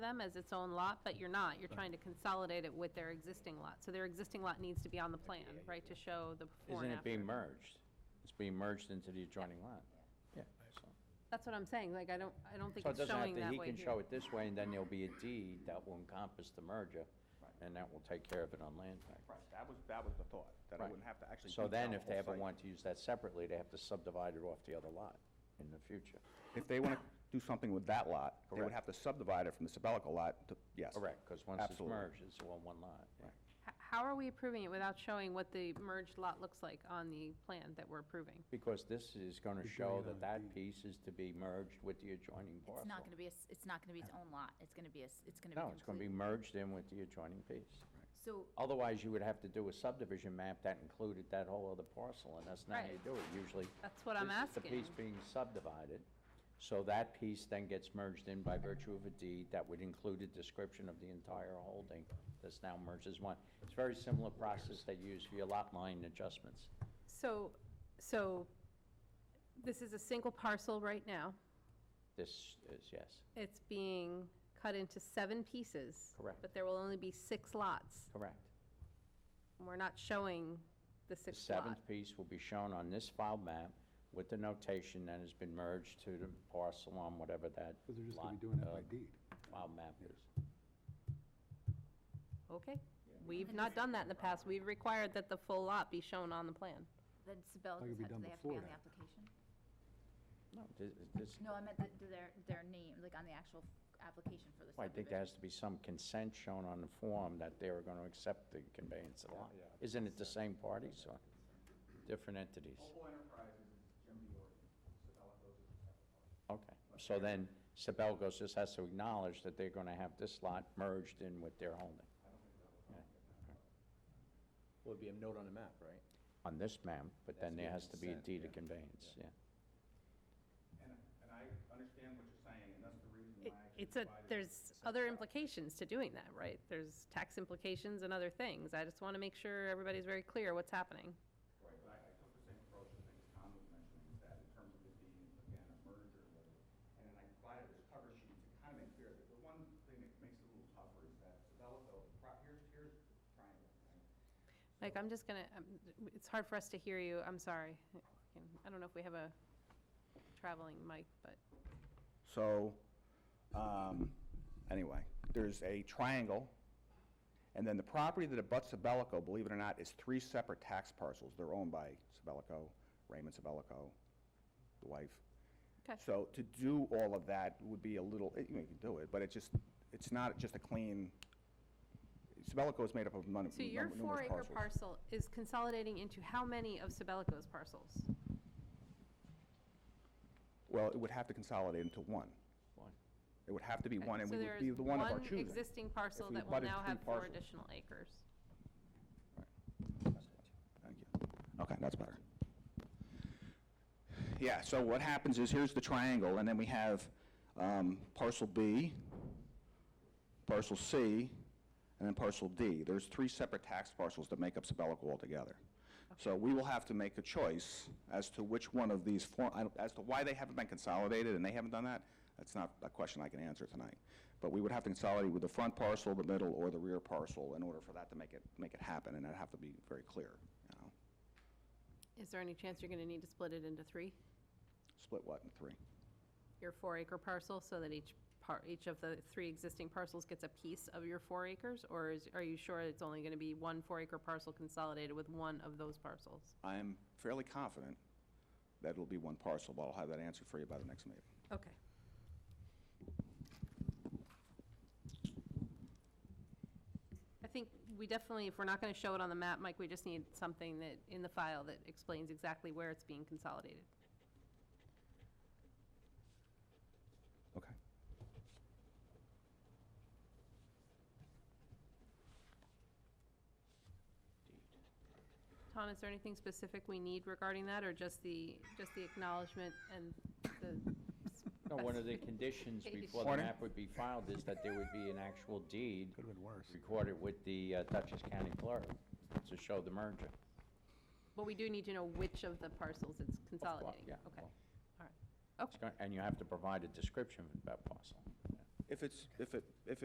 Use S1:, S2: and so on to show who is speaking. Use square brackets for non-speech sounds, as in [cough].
S1: them as its own lot, but you're not. You're trying to consolidate it with their existing lot. So their existing lot needs to be on the plan, right, to show the before
S2: Isn't
S1: and
S2: it being
S1: after.
S2: merged? It's being merged into the adjoining lot. Yeah. so-
S1: That's what I'm saying, like, I don't, I don't think
S2: So it
S1: it's
S2: doesn't
S1: showing
S2: have to,
S1: that
S2: he
S1: way
S2: can show
S1: here.
S2: it this way, and then there'll be a deed that will encompass the merger, and that will take care of it on land tax.
S3: Right, that was, that was the thought, that I
S2: Right.
S3: wouldn't have to actually.
S2: So
S3: beat
S2: then,
S3: down
S2: if
S3: the
S2: they
S3: whole
S2: ever
S3: site.
S2: want to use that separately, they have to subdivide it off the other lot in the future.
S3: If they want to do something with that lot, they would
S2: Correct.
S3: have to subdivide it from the Sebelico lot to, yes.
S2: Correct, because once it's
S3: Absolutely.
S2: merged, it's all one lot. yeah.
S1: H- How are we approving it without showing what the merged lot looks like on the plan that we're approving?
S2: Because this is going to show that that piece is to be merged with the adjoining parcel.
S4: It's not going to be, a s- it's not going to be its own lot. It's going to be, a s- it's going to be.
S2: No, it's going to be
S4: complete-
S2: merged in with the adjoining piece.
S4: So,
S2: Otherwise, you would have to do a subdivision map that included that whole other parcel, and that's not how you
S1: Right.
S2: do it usually.
S1: That's what I'm
S2: This is the
S1: asking.
S2: piece being subdivided, so that piece then gets merged in by virtue of a deed that would include a description of the entire holding that's now merged as one. It's a very similar process that you use for your lot line adjustments.
S1: So, so this is a single parcel right now.
S2: This is, yes,
S1: It's being cut into seven pieces.
S2: Correct.
S1: But there will only be six lots.
S2: correct.
S1: We're not showing the
S2: The
S1: sixth lot.
S2: seventh piece will be shown on this file map with the notation that has been merged to the parcel on whatever that
S5: Because they're just going to
S2: lot,
S5: be doing that by
S2: uh,
S5: deed.
S2: File map is.
S1: Okay. We've not done that in the past. We've required that the full lot be shown on the plan.
S4: then
S5: Like it'd
S4: Sibelico's,
S5: be
S4: ha- do
S5: done
S4: they have to be
S5: before
S4: on the
S5: that.
S4: application?
S2: No, this, this,
S4: No, I meant that their, their name, like on the actual f- application for the
S2: I think there has
S4: subdivision.
S2: to be some consent shown on the form that they were gonna accept the conveyance of the lot. Isn't it the same parties or different entities?
S6: Mobile Enterprises is Jim Diori, Sabelico's is a separate party.
S2: Okay, so then Sabelco's just has to acknowledge that they're gonna have this lot merged in with their holding.
S7: Would be a note on the map, right?
S2: On this map, but then there has to be a
S7: That's the
S2: deed of
S7: consent,
S2: conveyance, yeah.
S6: And, and I understand what you're saying, and that's the reason
S1: It-
S6: why I.
S1: It's a,
S6: provided-
S1: there's other implications to doing that, right? There's tax implications and other things. I just want to make sure everybody's very clear what's happening.
S6: Right, but I, I took the same approach I think as Tom was mentioning, is that in terms of it being, again, a merger, whether- and then I provided this cover sheet to kind of make clear that the one thing that makes it a little tougher is that Sabelico, pro- here's, here's triangle, right?
S1: Mike, I'm just gonna, um, it's hard for us to hear you, I'm sorry. I don't know if we have a traveling mic, but,
S3: So, um, anyway, there's a triangle, and then the property that abuts Sabelico, believe it or not, is three separate tax parcels. They're owned by Sabelico, Raymond Sabelico, the wife.
S1: okay.
S3: So to do all of that would be a little, eh, you know, you can do it, but it just, it's not just a clean, Sabelico is made up of mon-
S1: So your
S3: numerous
S1: four-acre
S3: parcels.
S1: parcel is consolidating into how many of Sabelico's parcels?
S3: Well, it would have to consolidate into one.
S2: One.
S3: It would have to be one, and
S1: So
S3: we would be
S1: there's
S3: the one of our choosing.
S1: One existing parcel
S3: If we
S1: that will
S3: abutted
S1: now
S3: three
S1: have four
S3: parcels.
S1: additional acres.
S3: Thank you. Okay, that's better. Yeah, so what happens is, here's the triangle, and then we have um, parcel B, parcel C, and then parcel D. There's three separate tax parcels that make up Sabelico altogether. So we will have to make a choice as to which one of these, four- I don't- as to why they haven't been consolidated and they haven't done that, that's not a question I can answer tonight. But we would have to consolidate with the front parcel, the middle, or the rear parcel in order for that to make it, make it happen, and that'd have to be very clear, you know?
S1: Is there any chance you're gonna need to split it into three?
S3: Split what in three?
S1: Your four-acre parcel, so that each part, each of the three existing parcels gets a piece of your four acres? Or is, are you sure it's only gonna be one four-acre parcel consolidated with one of those parcels?
S3: I'm fairly confident that it'll be one parcel, but I'll have that answered for you by the next meeting.
S1: Okay. I think we definitely, if we're not going to show it on the map, Mike, we just need something that, in the file, that explains exactly where it's being consolidated.
S3: Okay.
S1: Tom, is there anything specific we need regarding that, or just the, just the acknowledgement and the?
S2: No, one [laughs] of the conditions before the
S3: Morning.
S2: map would be filed is that there would be an actual deed
S5: Could have been worse.
S2: recorded with the uh, Dutchess County Clerk to show the merger.
S1: But we do need to know which of the parcels it's consolidating.
S2: yeah,
S1: Okay, all
S2: well.
S1: right.
S2: It's gonna- And you have to provide a description of that parcel.
S3: If it's, if it, if